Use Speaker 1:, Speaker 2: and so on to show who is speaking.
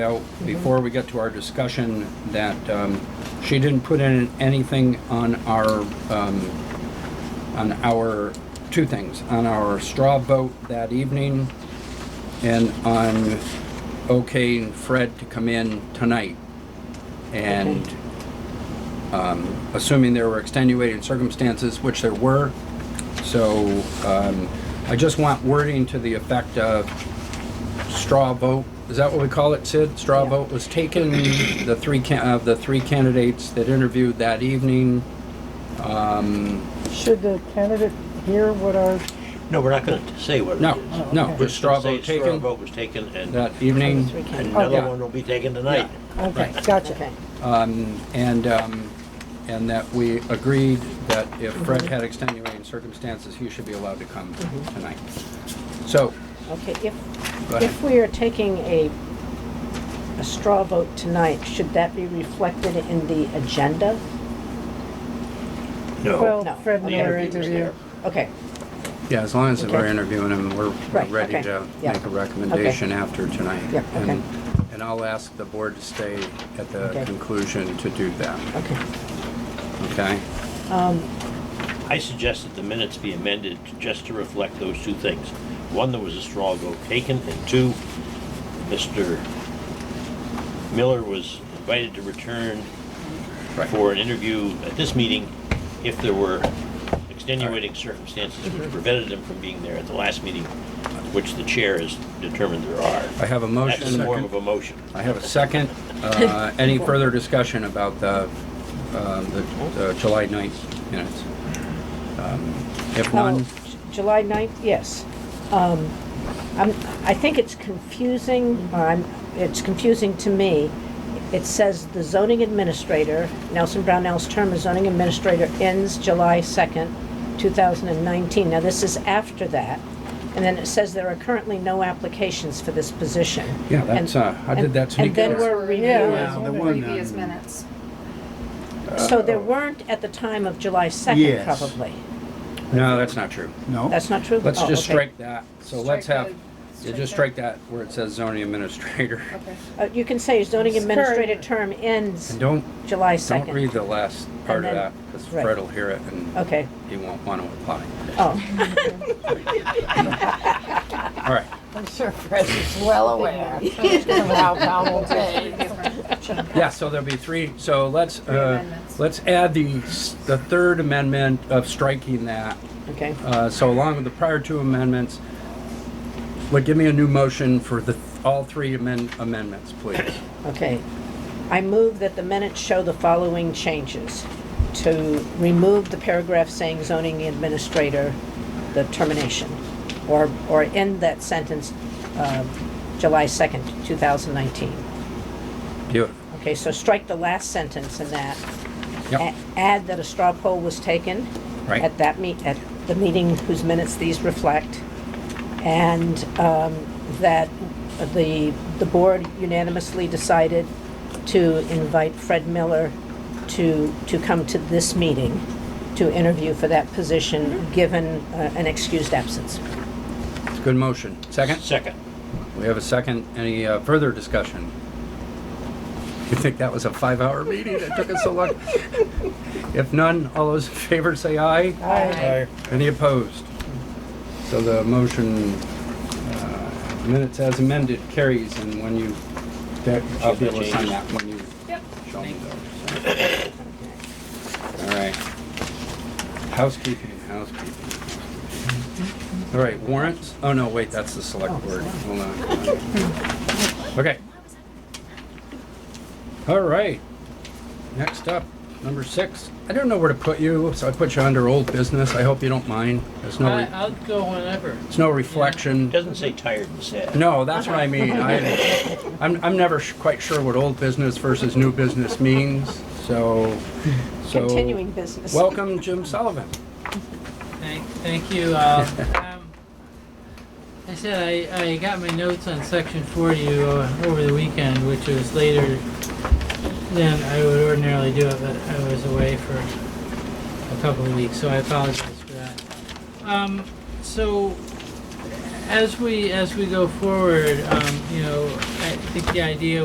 Speaker 1: out before we get to our discussion that um, she didn't put in anything on our, um, on our, two things, on our straw vote that evening and on okaying Fred to come in tonight. And um, assuming there were extenuating circumstances, which there were, so um, I just want wording to the effect of straw vote, is that what we call it, Sid? Straw
Speaker 2: Yeah.
Speaker 1: vote was taken, the three, can- of the three candidates that interviewed that evening. um,
Speaker 2: Should the candidate hear what our,
Speaker 3: No, we're not gonna say what it
Speaker 1: No,
Speaker 3: is.
Speaker 2: Oh,
Speaker 1: no,
Speaker 2: okay.
Speaker 1: the
Speaker 3: Just
Speaker 1: straw
Speaker 3: say
Speaker 1: vote
Speaker 3: Straw
Speaker 1: taken
Speaker 3: vote was taken, and
Speaker 1: that evening.
Speaker 3: another
Speaker 2: Okay.
Speaker 3: one will be taken tonight.
Speaker 2: okay,
Speaker 1: Right.
Speaker 2: gotcha.
Speaker 1: Um, And, um, and that we agreed that if Fred had extenuating circumstances, he should be allowed to come
Speaker 4: Mm-hmm.
Speaker 1: tonight. So,
Speaker 4: Okay, if,
Speaker 1: Go ahead.
Speaker 4: if we are taking a, a straw vote tonight, should that be reflected in the agenda?
Speaker 3: No.
Speaker 2: Well,
Speaker 4: No.
Speaker 2: Fred
Speaker 3: The
Speaker 2: Miller
Speaker 3: interview was
Speaker 2: interview.
Speaker 4: Okay,
Speaker 1: yeah, as long as we're
Speaker 4: Okay.
Speaker 1: interviewing him, we're we're
Speaker 4: Right,
Speaker 1: ready
Speaker 4: okay,
Speaker 1: to
Speaker 4: yeah.
Speaker 1: make a recommendation after tonight.
Speaker 4: Yeah, okay.
Speaker 1: And- And I'll ask the board to stay at the
Speaker 4: Okay.
Speaker 1: conclusion to do that,
Speaker 4: okay.
Speaker 1: okay?
Speaker 3: I suggest that the minutes be amended just to reflect those two things. One, there was a straw vote taken, and two, Mr. Miller was invited to return
Speaker 1: Right.
Speaker 3: for an interview at this meeting if there were extenuating circumstances which prevented him from being there at the last meeting, which the chair has determined there are.
Speaker 1: I have a motion.
Speaker 3: That's a form of a motion.
Speaker 1: I have a second. Uh, Any further discussion about the, um, the the July 9th minutes? Um, If none,
Speaker 4: Oh, J- July 9th, yes. Um, I'm, I think it's confusing, or I'm, it's confusing to me. It says the zoning administrator, Nelson Brownell's term as zoning administrator ends July 2nd, 2019. Now, this is after that. And then it says there are currently no applications for this position.
Speaker 1: yeah, that's,
Speaker 4: And-
Speaker 1: uh, how did that
Speaker 4: and-
Speaker 1: sneak
Speaker 4: and then
Speaker 1: in?
Speaker 4: we're
Speaker 2: Yeah.
Speaker 4: reviewing.
Speaker 5: The previous minutes.
Speaker 4: So there weren't at the time of July 2nd,
Speaker 6: Yes.
Speaker 4: probably.
Speaker 1: No, that's not true.
Speaker 6: No,
Speaker 4: That's not true?
Speaker 1: Let's
Speaker 4: Oh,
Speaker 1: just
Speaker 4: okay.
Speaker 1: strike that. So let's
Speaker 5: Strike
Speaker 1: have,
Speaker 5: the-
Speaker 1: you just strike that where it says zoning administrator.
Speaker 5: that. Okay.
Speaker 4: Uh, You can say zoning
Speaker 2: It's
Speaker 4: administrator
Speaker 2: current.
Speaker 4: term ends
Speaker 1: And don't,
Speaker 4: July
Speaker 1: don't
Speaker 4: 2nd.
Speaker 1: read the last part of
Speaker 4: And
Speaker 1: that
Speaker 4: then-
Speaker 1: because
Speaker 4: right.
Speaker 1: Fred will hear it and
Speaker 4: Okay,
Speaker 1: he won't want to apply.
Speaker 4: oh,
Speaker 1: All right.
Speaker 7: I'm sure Fred is well aware of how Val will take.
Speaker 1: Yeah, so there'll be three, so let's, uh,
Speaker 5: amendments.
Speaker 1: let's add the, s- the third amendment of striking that
Speaker 4: okay.
Speaker 1: Uh, So along with the prior two amendments, would give me a new motion for the, all three amend- amendments, please.
Speaker 4: Okay. I move that the minutes show the following changes. To remove the paragraph saying zoning administrator, the termination, or, or end that sentence, uh, July 2nd, 2019.
Speaker 1: Beautiful.
Speaker 4: Okay, so strike the last sentence in that.
Speaker 1: Yep,
Speaker 4: A- Add that a straw poll was taken.
Speaker 1: Right.
Speaker 4: At that meet, at the meeting whose minutes these reflect. And um, that the, the board unanimously decided to invite Fred Miller to, to come to this meeting to interview for that position, given uh, an excused absence.
Speaker 1: it's a good motion. Second?
Speaker 3: Second.
Speaker 1: We have a second. Any uh, further discussion? You think that was a five-hour meeting that took us so long? If none, all those in favor say aye.
Speaker 2: Aye.
Speaker 1: Any opposed? So the motion, uh, minutes as amended carries, and when you, that- I'll be able to sign that when you
Speaker 5: Yep.
Speaker 1: show me those. so. All right. Housekeeping, housekeeping. All right, warrants? Oh, no, wait, that's the select board. Hold on. Okay. All right. Next up, number six. I don't know where to put you, so I put you under old business. I hope you don't mind. There's no,
Speaker 8: I,
Speaker 1: re-
Speaker 8: I'll go whenever.
Speaker 1: there's no reflection.
Speaker 3: It doesn't say tired and sad.
Speaker 1: No, that's what I mean. I, I'm, I'm never sh- quite sure what old business versus new business means, so, so.
Speaker 4: Continuing business.
Speaker 1: Welcome, Jim Sullivan.
Speaker 8: Thank, thank you. Uh, um, I said I, I got my notes on section 40 uh, over the weekend, which was later than I would ordinarily do it, but I was away for a couple of weeks, so I apologize for that. Um, so as we as we go forward, um, you know, I think the idea